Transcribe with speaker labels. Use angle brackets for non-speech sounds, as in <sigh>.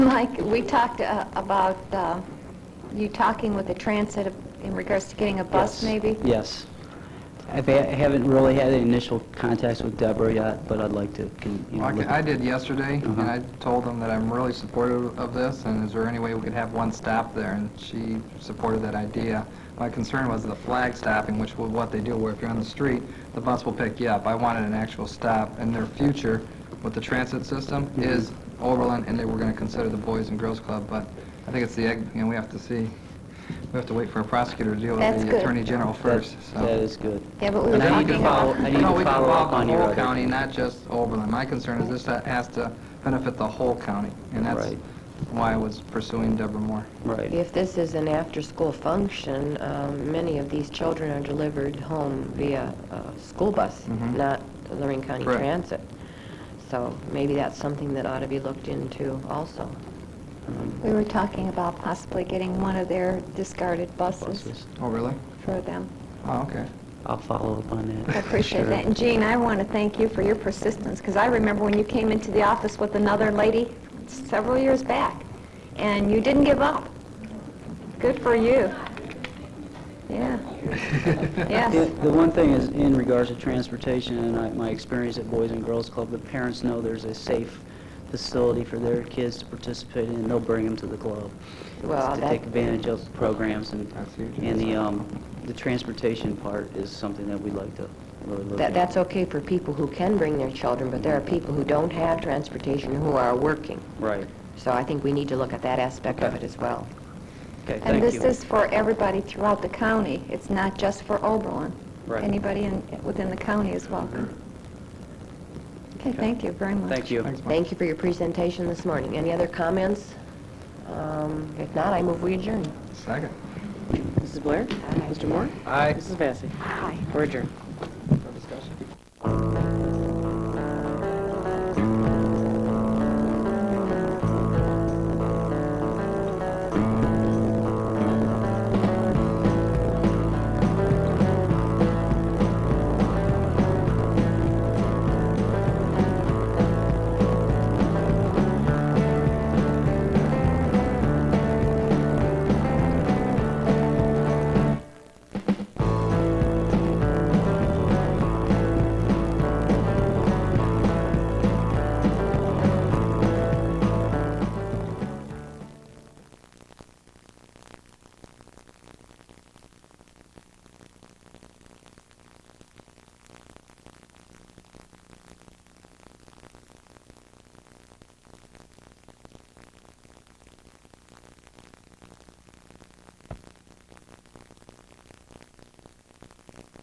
Speaker 1: Mike, we talked uh, about uh, you talking with the transit in regards to getting a bus,
Speaker 2: Yes.
Speaker 1: maybe?
Speaker 2: Yes. I've ha- I haven't really had any initial contacts with Deborah yet, but I'd like to, con- you know,
Speaker 3: Well, I
Speaker 2: look
Speaker 3: ca-
Speaker 2: at-
Speaker 3: I did yesterday, and
Speaker 2: Uh-huh.
Speaker 3: I told them that I'm really supportive of this, and is there any way we could have one stop there? And she supported that idea. My concern was the flag stopping, which was what they do, where if you're on the street, the bus will pick you up. I wanted an actual stop, and their future with the transit system
Speaker 2: Mm-hmm.
Speaker 3: is Oberlin, and they were going to consider the Boys and Girls Club, but I think it's the, egg- you know, we have to see, we have to wait for a prosecutor to deal
Speaker 1: That's
Speaker 3: with
Speaker 1: good.
Speaker 3: the Attorney General first,
Speaker 2: That-
Speaker 3: so.
Speaker 2: That is good.
Speaker 1: Yeah, but we were
Speaker 3: And I need
Speaker 1: talking
Speaker 3: to
Speaker 1: about...
Speaker 3: follow,
Speaker 2: I
Speaker 3: I
Speaker 2: need to follow up on your
Speaker 3: the whole
Speaker 2: other-
Speaker 3: county, not just Oberlin. My concern is this has to benefit the whole county, and that's
Speaker 2: Right.
Speaker 3: why I was pursuing Deborah Moore.
Speaker 2: Right.
Speaker 4: If this is an after-school function, um, many of these children are delivered home via uh, school bus, not the Lorraine County
Speaker 3: Correct.
Speaker 4: Transit. So maybe that's something that ought to be looked into also.
Speaker 2: Um,
Speaker 1: We were talking about possibly getting one of their discarded buses
Speaker 2: Buses.
Speaker 3: Oh, really?
Speaker 1: for
Speaker 3: <laughs>
Speaker 1: them.
Speaker 3: Oh, okay.
Speaker 2: I'll follow up on that.
Speaker 1: I appreciate
Speaker 2: Sure.
Speaker 1: that. And Jean, I want to thank you for your persistence, because I remember when you came into the office with another lady several years back, and you didn't give up. Good for you.
Speaker 3: <laughs>
Speaker 1: Yeah.
Speaker 2: Yeah,
Speaker 1: Yes.
Speaker 2: The one thing is, in regards to transportation, and I- my experience at Boys and Girls Club, the parents know there's a safe facility for their kids to participate in, and they'll bring them to the club.
Speaker 4: Well,
Speaker 2: To
Speaker 4: that-
Speaker 2: take advantage of programs, and,
Speaker 3: That's huge.
Speaker 2: and the, um, the transportation part is something that we'd like to really look
Speaker 4: That
Speaker 2: at.
Speaker 4: That's okay for people who can bring their children, but there are people who don't have transportation who are working.
Speaker 2: Right.
Speaker 4: So I think we need to look at that aspect of it as well.
Speaker 2: Okay, thank you.
Speaker 1: And this is for everybody throughout the county. It's not just for Oberlin.
Speaker 2: Right.
Speaker 1: Anybody in, within the county is welcome. Okay, thank you very much.
Speaker 2: Thank you.
Speaker 3: Thanks, Mike.
Speaker 4: Thank you for your presentation this morning. Any other comments? Um, If not, I move we adjourn.
Speaker 3: Second.
Speaker 5: Mrs. Blair? Mr. Moore?
Speaker 3: Aye.
Speaker 5: Mrs. Vacy?
Speaker 1: Aye.
Speaker 5: We're adjourned.